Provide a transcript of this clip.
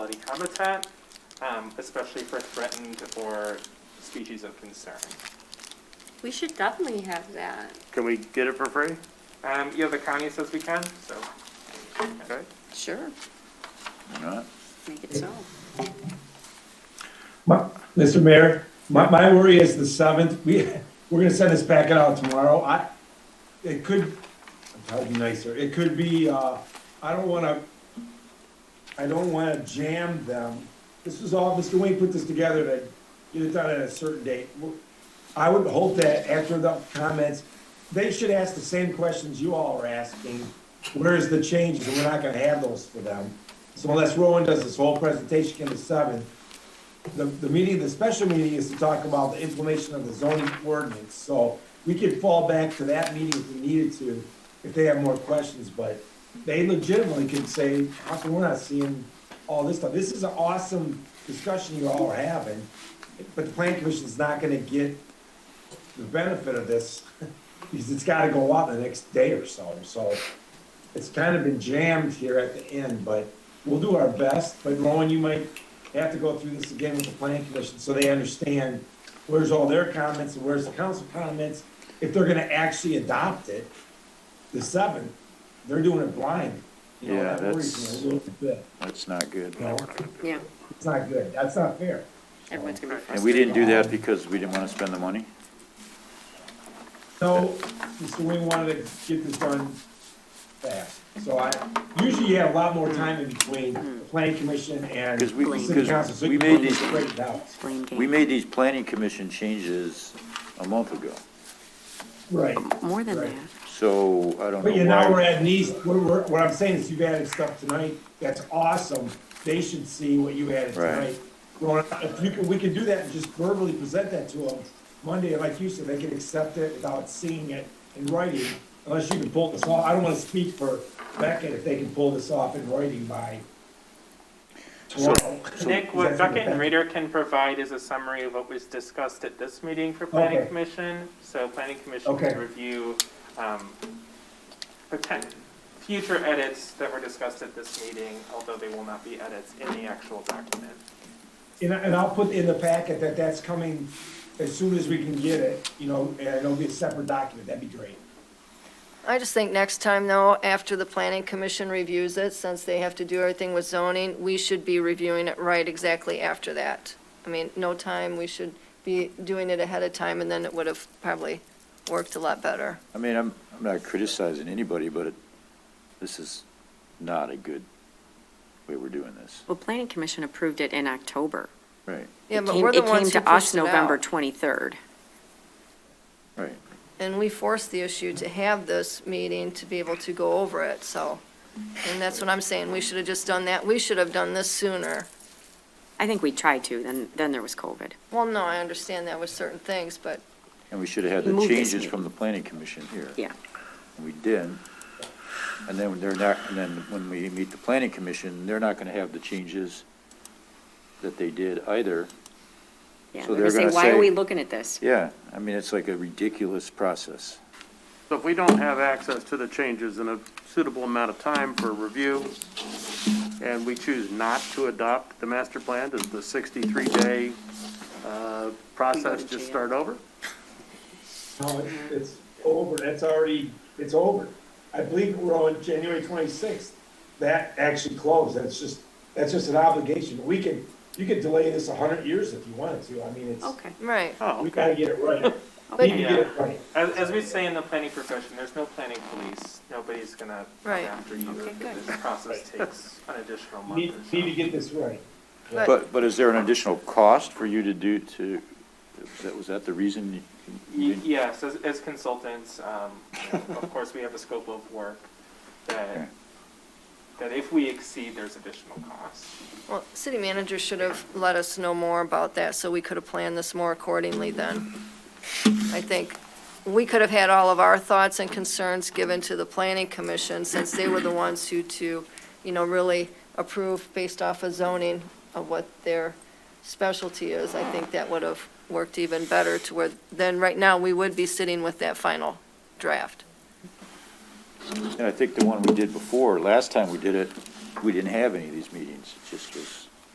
habitat, um, especially for threatened or species of concern. We should definitely have that. Can we get it for free? Um, yeah, the county says we can, so. Okay. Sure. All right. Make it so. My- Mr. Mayor, my, my worry is the seventh, we, we're gonna send this packet out tomorrow, I, it could, I'm trying to be nicer, it could be, uh, I don't wanna, I don't wanna jam them. This is all, Mr. Wayne put this together to get it done at a certain date. I would hope that after the comments, they should ask the same questions you all are asking. Where's the changes, and we're not gonna have those for them. So unless Rowan does this whole presentation in the seventh, the, the meeting, the special meeting is to talk about the implementation of the zoning ordinance, so we could fall back to that meeting if we needed to, if they have more questions, but they legitimately could say, how come we're not seeing all this stuff? This is an awesome discussion you all are having, but the plan commission's not gonna get the benefit of this, because it's gotta go out the next day or so, so it's kind of been jammed here at the end, but we'll do our best. But Rowan, you might have to go through this again with the planning commission so they understand where's all their comments and where's the council comments. If they're gonna actually adopt it, the seventh, they're doing it blind. You know, Yeah, that worries me a little bit. That's not good. No. Yeah, It's not good. That's not fair. everyone's gonna be And we frustrated. didn't do that because we didn't want to spend the money? So, Mr. Wing wanted to get this done fast. So I, usually you have a lot more time in between the planning commission and 'Cause we- the city because council. so we you made can these- break it down. Blame We game. made these planning commission changes a month ago, Right. More than Right. that. so I don't know But yeah, now we're why. adding these, what we're, what I'm saying is you've added stuff tonight, that's awesome, they should see what you added Right. tonight. Well, if you can, we can do that and just verbally present that to them Monday, like you said, they can accept it without seeing it in writing, unless you can pull this off, I don't wanna speak for Beckett if they can pull this off in writing by tomorrow. Nick, Is what that- Beckett and Reader can provide is a summary of what was discussed at this meeting for planning Okay. commission. So planning commission Okay. can review, um, potent, future edits that were discussed at this meeting, although they will not be edits in the actual document. And, I- and I'll put in the packet that that's coming as soon as we can get it, you know, and it'll be a separate document, that'd be great. I just think next time though, after the planning commission reviews it, since they have to do everything with zoning, we should be reviewing it right exactly after that. I mean, no time, we should be doing it ahead of time and then it would have probably worked a lot better. I mean, I'm, I'm not criticizing anybody, but it, this is not a good way we're doing this. Well, planning commission approved it in October. Right, Yeah, It but came- we're the ones who It came to us pushed it out. November 23rd. right. And we forced the issue to have this meeting to be able to go over it, so. And that's what I'm saying, we should have just done that, we should have done this sooner. I think we tried to, then, then there was COVID. Well, no, I understand that with certain things, but And we should have had the Move this changes meeting. from the planning commission here. Yeah. And We did. And then they're not, and then when we meet the planning commission, they're not gonna have the changes that they did either. Yeah, So they're gonna they're say, gonna why are say- we looking at this? Yeah, I mean, it's like a ridiculous process. So if we don't have access to the changes in a suitable amount of time for review, and we choose not to adopt the master plan, does the 63-day uh, process jail. just start over? No, it's, it's over, that's already, it's over. I believe we're on January twenty-sixth, that actually closed, that's just, that's just an obligation. We could, you could delay this a hundred years if you wanted to, I mean, it's, Okay, Right, Oh, we gotta get it right. We okay. can get it right. As, as we say in the planning profession, there's no planning police. Nobody's gonna come Right. after you Okay, if good. this process takes an additional We month Need, or so. need to get this right. but, But, but is there an additional cost for you to do to, that, was that the reason? you- Y- Yes, as, as consultants, um, you know, of course, we have a scope of work Okay. that, that if we exceed, there's additional costs. well, city manager should have let us know more about that, so we could have planned this more accordingly then. I think we could have had all of our thoughts and concerns given to the planning commission, since they were the ones who to, you know, really approve based off of zoning of what their specialty is. I think that would have worked even better to where, then right now, we would be sitting with that final draft. And I think the one we did before, last time we did it, we didn't have any of these meetings, it just was